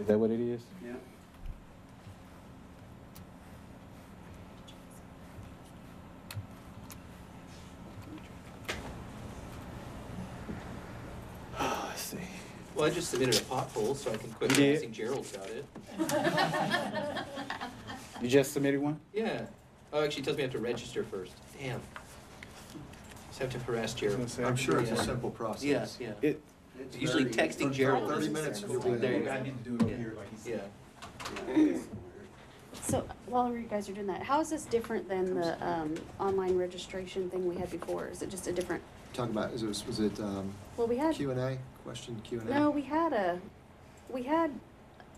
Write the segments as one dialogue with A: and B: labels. A: Is that what it is?
B: Yeah.
A: I see.
C: Well, I just submitted a pothole, so I can quit
B: You did?
C: harassing Gerald about it.
B: You just submitted one?
C: Yeah. Oh, actually, it tells me I have to register first. Damn. Just have to harass Gerald.
D: I'm sure it's a
C: Yeah.
D: simple process.
C: Yeah, yeah.
B: It,
D: It's
C: Usually
D: very-
C: texting
D: for
C: Gerald
D: Thirty
C: is-
D: minutes.
C: is
D: you'll
C: like,
D: be
C: there you
D: there.
C: go.
E: I need to do it over
C: Yeah.
E: here, like he said.
C: Yeah.
F: So while you guys are doing that, how is this different than the um, online registration thing we had before? Is it just a different,
D: Talk about, is it, was it, um,
F: well, we had,
D: Q and A, question Q and A?
F: no, we had a, we had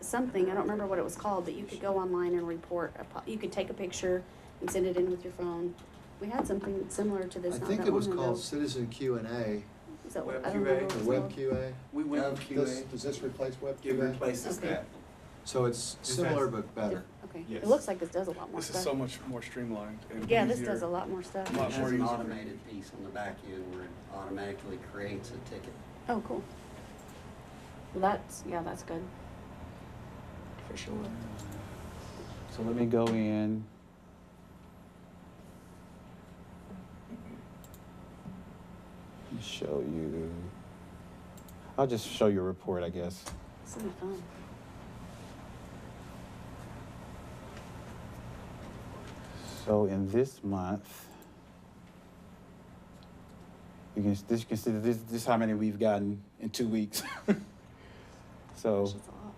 F: something, I don't remember what it was called, but you could go online and report, a po- you could take a picture and send it in with your phone. We had something similar to
D: I
F: this not
D: think
F: that
D: it was
F: long ago.
D: called Citizen Q and A,
F: Is that what-
E: Web
F: I don't remember
E: QA.
F: what it
D: or
F: was
D: Web
F: called.
D: QA.
E: We went
D: Gov-
E: to
D: does-
E: QA,
D: Does this replace Web
E: it
D: QA?
E: replaces
F: Okay.
E: that.
D: So it's
E: Is
D: similar
E: that-
D: but better.
F: Okay,
E: Yes.
F: it looks like this does a lot more
G: This is so
F: stuff.
G: much more streamlined and
F: Yeah, this
G: easier.
F: does a lot more stuff.
G: Lot
H: It
G: more
H: has an
G: user-
H: automated piece on the back end where it automatically creates a ticket.
F: Oh, cool. Well, that's, yeah, that's good.
C: For sure.
A: So let me go in. Let me Show you. I'll just show you a report, I guess.
F: It's so much fun.
A: So in this month, you can, this, you can see that this, this is how many we've gotten in two weeks. So
F: Gosh, it's a lot.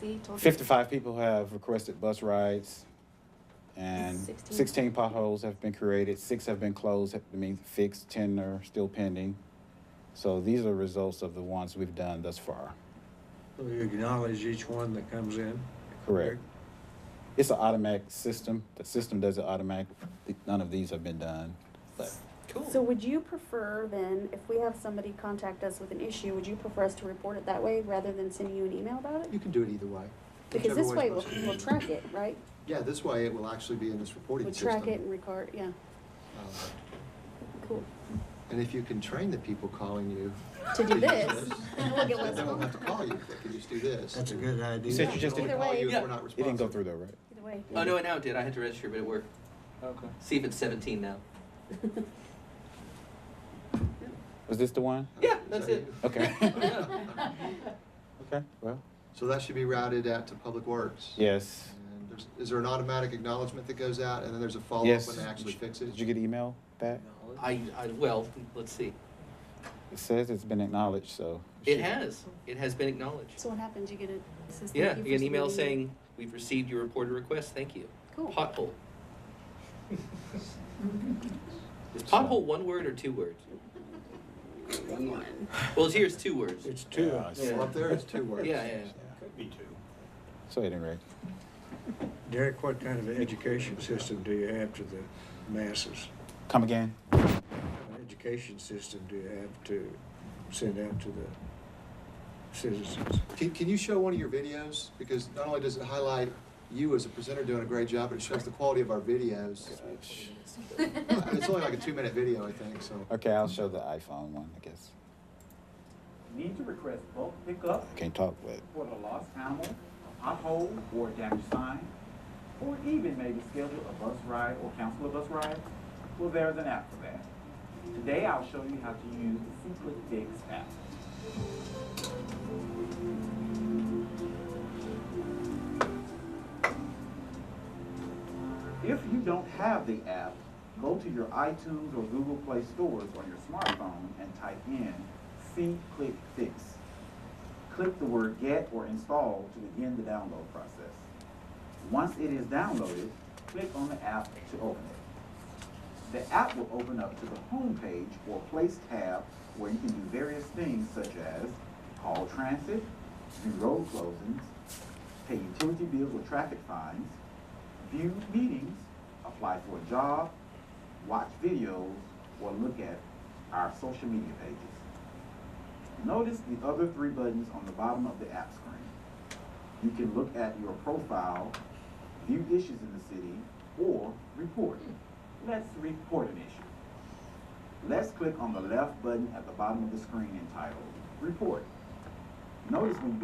F: See, told you.
A: fifty-five people have requested bus rides and
F: Sixteen.
A: sixteen potholes have been created, six have been closed, have been fixed, ten are still pending. So these are results of the ones we've done thus far.
I: So you acknowledge each one that comes in?
A: Correct. It's an automatic system. The system does it automatic. None of these have been done, but
C: Cool.
F: So would you prefer then, if we have somebody contact us with an issue, would you prefer us to report it that way rather than send you an email about
D: You
F: it?
D: can do it either way.
F: Because this
D: Whichever
F: way
D: is
F: we'll,
D: most-
F: we'll track it, right?
D: Yeah, this way it will actually be in this reporting
F: We'll
D: system.
F: track it and record, yeah,
D: Um,
F: cool.
D: And if you can train the people calling you.
F: To do this,
D: Then
F: look at what's
D: they
F: going
D: won't have to call
F: on.
D: you, they can just do this.
I: That's a good idea.
A: said you just
D: They
A: did it-
D: only call you if
C: Yeah.
D: we're not
A: it didn't go
D: responsive.
A: through though, right?
F: Either way.
C: Oh, no, it now did. I had to register, but it worked.
G: Okay.
C: See if it's 17 now.
A: Was this the one?
C: Yeah,
D: Is
C: that's
D: that
C: it.
D: you?
A: Okay.
C: Yeah.
A: Okay. Well,
D: So that should be routed out to Public Works?
A: yes.
D: And there's- Is there an automatic acknowledgement that goes out, and then there's a follow-up
A: Yes.
D: when they actually fix it?
A: Did you get email back?
C: I, I, well, let's see.
A: It says it's been acknowledged, so.
C: It
A: should-
C: has. It has been acknowledged.
F: So what happens, you get a, it says thank
C: Yeah,
F: you
C: you
F: for
C: get an email
F: submitting
C: saying, we've received your reported request, thank you.
F: Cool.
C: Pothole. Is pothole one word or two words?
F: one."
C: Well, here's two words.
I: It's two.
A: Yeah, I see.
D: Well, Up there is two words.
C: Yeah, yeah.
E: Could be two.
A: So at any rate,
I: Derek, what kind of education system do you have to the masses?
A: come again.
I: What Education system do you have to send out to the citizens?
D: Can, can you show one of your videos? Because not only does it highlight you as a presenter doing a great job, but it shows the quality of our videos.
A: Gosh.
D: It's only like a two-minute video, I think, so.
A: Okay, I'll show the iPhone one, I guess.
J: Need to request bulk pickup
A: Can't talk, but
J: for the lost animal, a pothole or damaged sign, or even maybe schedule a bus ride or cancel a bus ride? Well, there's an app for that. Today, I'll show you how to use the Secret Fix app. If you don't have the app, go to your iTunes or Google Play stores on your smartphone and type in C Click Fix. Click the word Get or Install to begin the download process. Once it is downloaded, click on the app to open it. The app will open up to the home page or Place tab where you can do various things such as call transit, do road closings, pay utility bills or traffic fines, view meetings, apply for a job, watch videos, or look at our social media pages. Notice the other three buttons on the bottom of the app screen. You can look at your profile, view issues in the city, or report. Let's report an issue. Let's click on the left button at the bottom of the screen entitled Report. Notice when you